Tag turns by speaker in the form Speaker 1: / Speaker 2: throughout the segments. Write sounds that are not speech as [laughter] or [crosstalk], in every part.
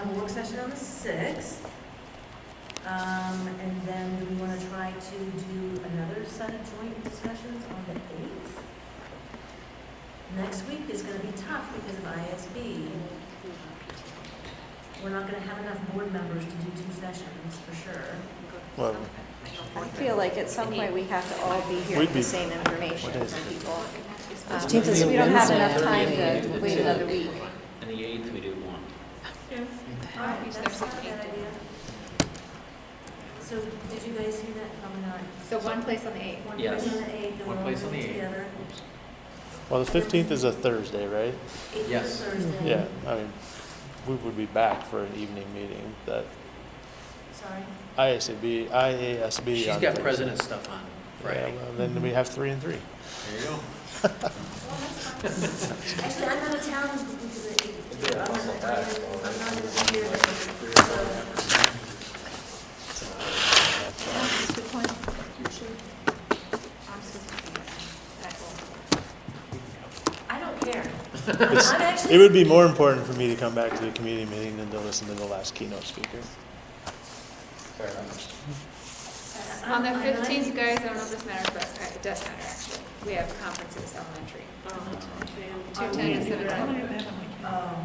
Speaker 1: on the sixth. Um, and then do we want to try to do another set of joint discussions on the eighth? Next week is gonna be tough because of ISB. We're not gonna have enough board members to do two sessions, for sure.
Speaker 2: Well,
Speaker 3: I feel like at some point we have to all be hearing
Speaker 2: We'd be-
Speaker 3: the same information
Speaker 2: what
Speaker 3: from
Speaker 2: is it?
Speaker 3: people. Um,
Speaker 4: It's
Speaker 3: Because we don't have enough time
Speaker 4: Wednesday.
Speaker 3: to wait another week.
Speaker 5: And the eighth, we do one.
Speaker 1: Alright, that's not a bad idea. So did you guys see that coming on?
Speaker 6: So one place on the eighth.
Speaker 1: One
Speaker 5: Yes.
Speaker 1: place on the eighth, and
Speaker 5: One
Speaker 1: we'll
Speaker 5: place
Speaker 1: all
Speaker 5: on the eighth.
Speaker 1: together.
Speaker 5: Oops.
Speaker 2: well, the fifteenth is a Thursday, right?
Speaker 5: Mm-hmm.
Speaker 1: Eighth is
Speaker 5: Yes.
Speaker 1: Thursday.
Speaker 2: Yeah, I mean, we would be back for an evening meeting that
Speaker 1: Sorry.
Speaker 2: IASB, IASB.
Speaker 5: She's
Speaker 2: on
Speaker 5: got
Speaker 2: Thursday.
Speaker 5: president stuff on
Speaker 2: Yeah,
Speaker 5: Friday.
Speaker 2: well, then we have three and three.
Speaker 5: There you go.
Speaker 1: Actually, I'm out of town because of the eighth. I'm not- I'm not- I'm not gonna be here. So, I don't care.
Speaker 2: It's-
Speaker 1: I'm actually.
Speaker 2: It would be more important for me to come back to the community meeting than to listen to the last keynote speaker.
Speaker 1: I'm-
Speaker 6: On the
Speaker 1: I'm not-
Speaker 6: fifteenth, guys, I don't know if this matters, but uh, it does matter actually. We have conferences elementary. Two ten to seven ten.
Speaker 1: Oh,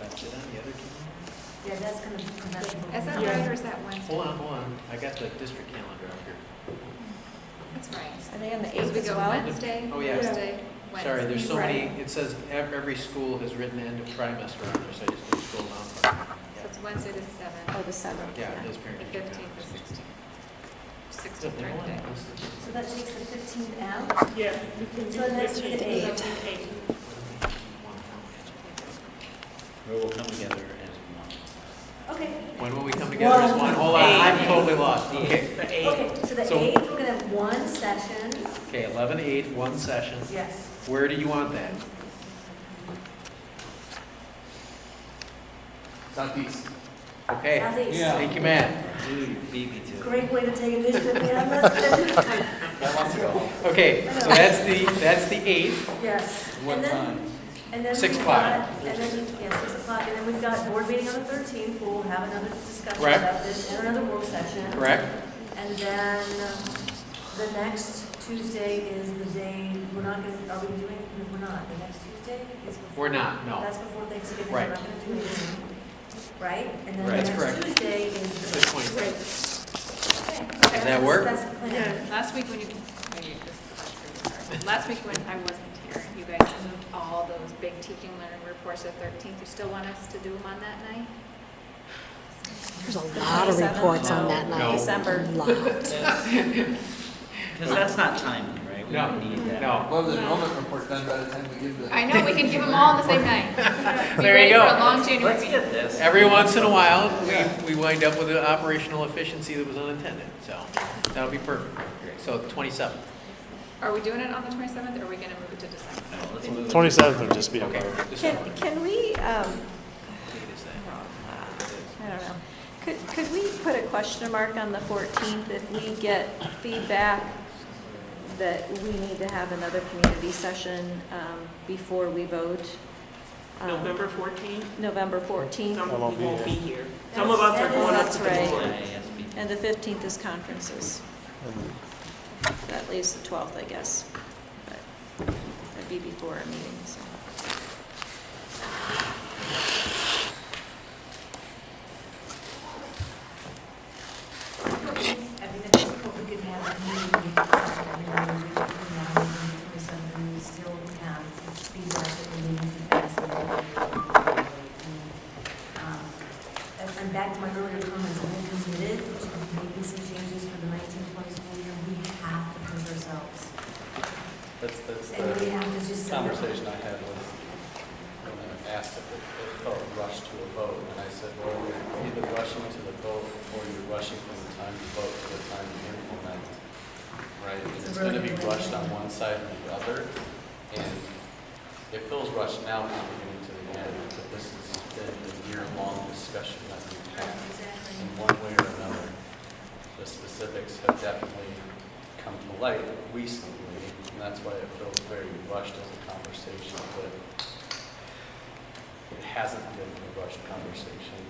Speaker 5: That's it on the other calendar?
Speaker 1: yeah, that's gonna prevent. people
Speaker 6: Is that
Speaker 1: from-
Speaker 6: right or is that Wednesday?
Speaker 5: Hold on, hold on. I got the district calendar up here.
Speaker 6: That's right.
Speaker 3: Are they on the
Speaker 6: Because
Speaker 3: eighth
Speaker 6: we
Speaker 3: as
Speaker 6: go
Speaker 3: well?
Speaker 6: Wednesday,
Speaker 5: Oh, yeah.
Speaker 6: Thursday, Wednesday.
Speaker 5: Sorry, there's so many, it says ev- every school has written end of trimester on there, so I just need to scroll down.
Speaker 6: So it's Wednesday the seventh,
Speaker 3: Oh, the seventh.
Speaker 5: Yeah, it is parent
Speaker 6: the
Speaker 5: teacher
Speaker 6: fifteenth, the
Speaker 5: conference.
Speaker 6: sixteenth.
Speaker 5: So
Speaker 6: Sixteenth,
Speaker 5: there
Speaker 6: right
Speaker 5: one
Speaker 6: day.
Speaker 5: listed.
Speaker 1: So that takes the fifteenth out?
Speaker 7: Yeah.
Speaker 1: So that's the eighth.
Speaker 5: Where we'll come together as
Speaker 1: Okay,
Speaker 5: one. When will we come together as one? Hold on, I'm totally lost. Okay,
Speaker 1: okay, so the
Speaker 5: So-
Speaker 1: eighth, we're gonna have one session.
Speaker 5: Okay, eleven eight, one session.
Speaker 1: Yes.
Speaker 5: Where do you want that?
Speaker 4: Southeast.
Speaker 5: Okay.
Speaker 1: Southeast. Yeah.
Speaker 5: Thank you, Matt.
Speaker 4: Dude, beat me to
Speaker 1: Great way to take a vision of Minneapolis.
Speaker 4: I want to go.
Speaker 5: Okay, so that's the, that's the eighth.
Speaker 1: Yes.
Speaker 4: What
Speaker 1: And then-
Speaker 4: time?
Speaker 1: And then.
Speaker 5: Six
Speaker 1: we've got-
Speaker 5: o'clock.
Speaker 1: And then, yeah, six o'clock, and then we've got board meeting on the thirteenth, we'll have another discussion
Speaker 5: Correct.
Speaker 1: about this, and another work session.
Speaker 5: Correct?
Speaker 1: And then um, the next Tuesday is the day, we're not gonna, are we doing, no, we're not, the next Tuesday is before.
Speaker 5: We're not, no.
Speaker 1: That's before Thanksgiving, we're
Speaker 5: Right.
Speaker 1: not gonna do anything, right? And then
Speaker 5: Right.
Speaker 1: the
Speaker 5: That's
Speaker 1: next
Speaker 5: correct.
Speaker 1: Tuesday is.
Speaker 5: Good point.
Speaker 1: Great.
Speaker 5: Does that work?
Speaker 1: That's the plan.
Speaker 6: Last week when you, maybe this is the last group, sorry. Last week when I wasn't here, you guys moved all those big teaching learning reports to thirteenth. You still want us to do them on that night?
Speaker 8: There's a lot of reports on that night.
Speaker 5: No.
Speaker 3: December.
Speaker 8: Lot.
Speaker 5: Because that's not timely, right? No, no.
Speaker 4: Well, the enrollment report done by the time we give the.
Speaker 6: I know, we can give them all on the same [laughs] night. Be
Speaker 5: There
Speaker 6: ready
Speaker 5: you
Speaker 6: for
Speaker 5: go.
Speaker 6: a long January meeting.
Speaker 5: this. Every once in a while, we, we wind up with an operational efficiency that was unintended, so that'll be perfect. So twenty-seven.
Speaker 6: Are we doing it on the twenty-seventh, or are we gonna move it to December?
Speaker 2: Twenty-seventh would just be
Speaker 5: Mm-hmm. Okay.
Speaker 2: above.
Speaker 5: Just
Speaker 3: Can,
Speaker 5: what
Speaker 3: can we, um,
Speaker 5: date is
Speaker 3: I
Speaker 5: that?
Speaker 3: don't know. Could, could we put a question mark on the fourteenth if we get feedback that we need to have another community session, um, before we vote? um,
Speaker 7: November fourteenth,
Speaker 3: November fourteenth,
Speaker 7: some
Speaker 2: I won't
Speaker 7: people
Speaker 2: be
Speaker 7: won't be
Speaker 2: here.
Speaker 7: here. Some of us are going up to
Speaker 3: That's
Speaker 7: the board.
Speaker 3: and the fifteenth is conferences.
Speaker 2: And
Speaker 3: That leaves the 12th, I guess. But That'd be before our meeting, so.
Speaker 1: I think that's what we could have, a meeting, and we could have or something, we still have feedback that we need to pass. on. Um, And and back to my earlier comments, we're committed to making some changes for the 1920 school year. We have to push ourselves.
Speaker 4: That's, that's
Speaker 1: And we
Speaker 4: the
Speaker 1: have to just.
Speaker 4: conversation I had with, when I was asked if it it felt rushed to a vote, and I said, well, you're either rushing to the vote, or you're rushing from the time you vote to the time you implement, right? And
Speaker 1: It's a
Speaker 4: it's gonna be
Speaker 1: brilliant way.
Speaker 4: rushed on one side or the other, and it feels rushed now, when we're getting to the end, but this has been a year-long discussion that we've had. in one way or another. The specifics have definitely come to light recently, and that's why it feels very rushed as a conversation, but it hasn't been a rushed conversation